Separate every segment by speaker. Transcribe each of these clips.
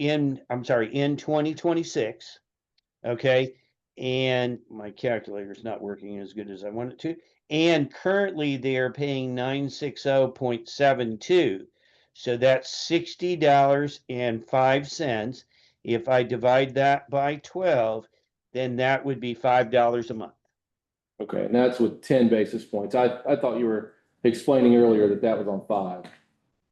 Speaker 1: in, I'm sorry, in twenty twenty-six. Okay, and my calculator's not working as good as I want it to. And currently they are paying nine six oh point seven two. So that's sixty dollars and five cents. If I divide that by twelve, then that would be five dollars a month.
Speaker 2: Okay, and that's with ten basis points. I, I thought you were explaining earlier that that was on five.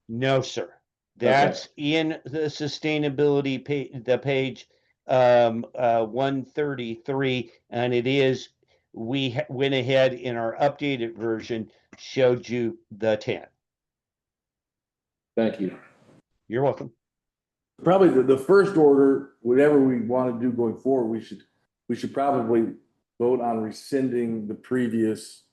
Speaker 1: No, sir. That's in the sustainability pa- the page um uh 133 and it is we ha- went ahead in our updated version showed you the 10.
Speaker 2: Thank you.
Speaker 1: You're welcome.
Speaker 3: Probably the, the first order, whatever we want to do going forward, we should, we should probably vote on rescinding the previous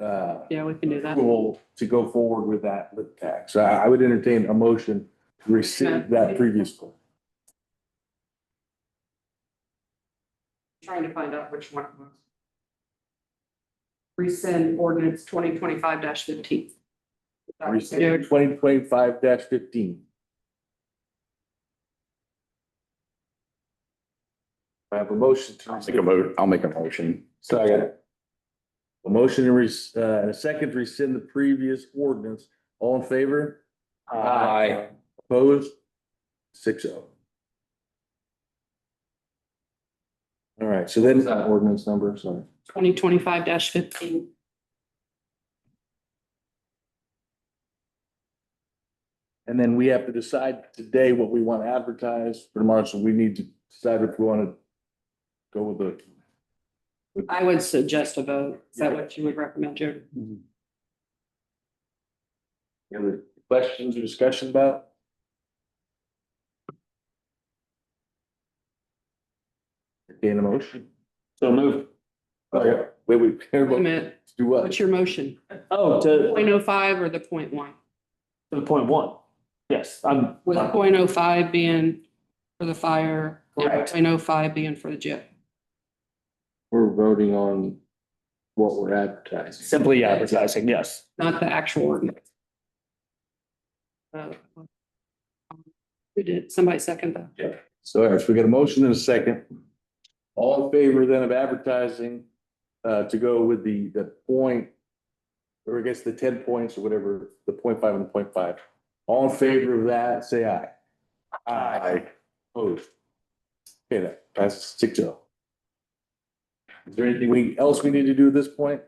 Speaker 3: uh,
Speaker 4: Yeah, we can do that.
Speaker 3: rule to go forward with that lip tax. So I I would entertain a motion to rescind that previous rule.
Speaker 4: Trying to find out which one it was. Rescind ordinance twenty twenty-five fifteen.
Speaker 3: Rescind twenty twenty-five fifteen. I have a motion to.
Speaker 5: I'll make a vote, I'll make a motion.
Speaker 3: Second. A motion to res, uh, and a second to rescind the previous ordinance. All in favor? Uh,
Speaker 2: Aye.
Speaker 3: Opposed? Six oh. All right, so then.
Speaker 2: Is that
Speaker 3: ordinance number, sorry.
Speaker 4: Twenty twenty-five fifteen.
Speaker 3: And then we have to decide today what we want to advertise for tomorrow, so we need to decide if we want to go with the.
Speaker 4: I would suggest a vote. Is that what you would recommend, Jared?
Speaker 3: Any other questions or discussion about? Entertain a motion.
Speaker 2: So move.
Speaker 3: Okay, wait, wait,
Speaker 4: Wait a
Speaker 3: everybody,
Speaker 4: minute,
Speaker 3: do what?
Speaker 4: what's your motion?
Speaker 2: Oh, to,
Speaker 4: Point oh five or the point one?
Speaker 2: to point one. Yes, I'm.
Speaker 4: With point oh five being for the fire, or
Speaker 3: Correct.
Speaker 4: point oh five being for the jail.
Speaker 3: We're voting on what we're advertising.
Speaker 2: Simply advertising, yes.
Speaker 4: not the actual ordinance. Uh, Who did, somebody second that?
Speaker 3: So, all right, so we got a motion and a second. All in favor then of advertising, uh, to go with the, the point, or I guess the ten points or whatever, the point five and the point five. All in favor of that, say aye. Aye. Opposed? Okay, that passes six oh. Is there anything we, else we need to do at this point?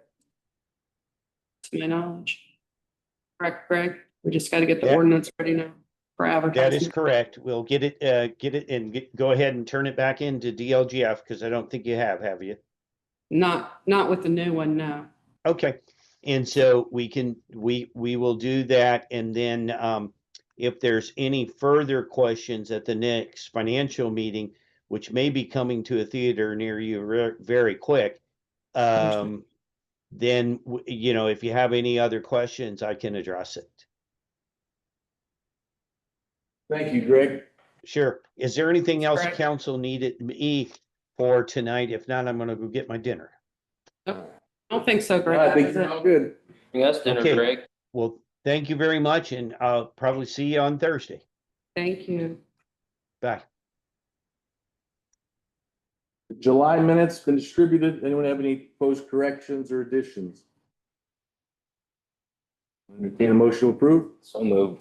Speaker 4: to my knowledge. Correct, Greg? We just gotta get the
Speaker 1: Yeah.
Speaker 4: ordinance ready now for
Speaker 1: That is
Speaker 4: advertising.
Speaker 1: correct. We'll get it uh get it and get, go ahead and turn it back into DLGF because I don't think you have, have you?
Speaker 4: Not, not with the new one, no.
Speaker 1: Okay, and so we can, we, we will do that, and then, um, if there's any further questions at the next financial meeting, which may be coming to a theater near you ver- very quick, um, then, w- you know, if you have any other questions, I can address it.
Speaker 3: Thank you, Greg.
Speaker 1: Sure. Is there anything else
Speaker 4: Correct.
Speaker 1: council needed me for tonight? If not, I'm gonna go get my dinner.
Speaker 4: I don't think so, Greg.
Speaker 3: I think
Speaker 4: That was
Speaker 3: you're
Speaker 4: it.
Speaker 3: all good.
Speaker 2: Yes,
Speaker 1: Okay. Well, thank you very much, and I'll probably see you on Thursday.
Speaker 4: Thank you.
Speaker 1: Bye.
Speaker 3: July minutes been distributed. Anyone have any proposed corrections or additions? Entertain a motion to approve?
Speaker 2: So move.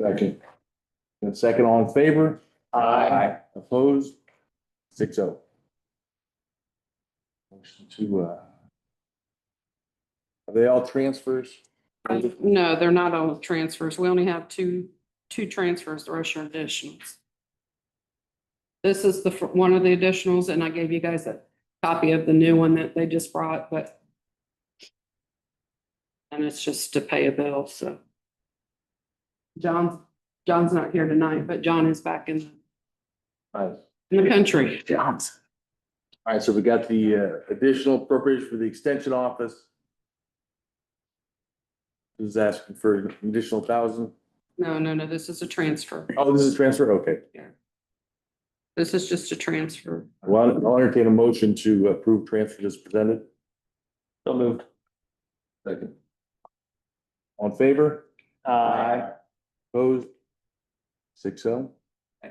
Speaker 3: Second. And second, all in favor?
Speaker 2: Aye.
Speaker 3: Opposed? Six oh. Motion to, uh, are they all transfers?
Speaker 4: No, they're not all transfers. We only have two, two transfers, the rest are additionals. This is the, fir- one of the additionals, and I gave you guys a copy of the new one that they just brought, but and it's just to pay a bill, so. John's, John's not here tonight, but John is back in,
Speaker 3: All
Speaker 4: in the country.
Speaker 2: John's.
Speaker 3: right, so we got the uh, additional appropriation for the extension office. Who's asking for an additional thousand?
Speaker 4: No, no, no, this is a transfer.
Speaker 3: Oh, this is transfer? Okay.
Speaker 4: This is just a transfer.
Speaker 3: Well, I'll entertain a motion to approve transfer as presented.
Speaker 2: So moved.
Speaker 3: Second. On favor? Opposed? Six oh.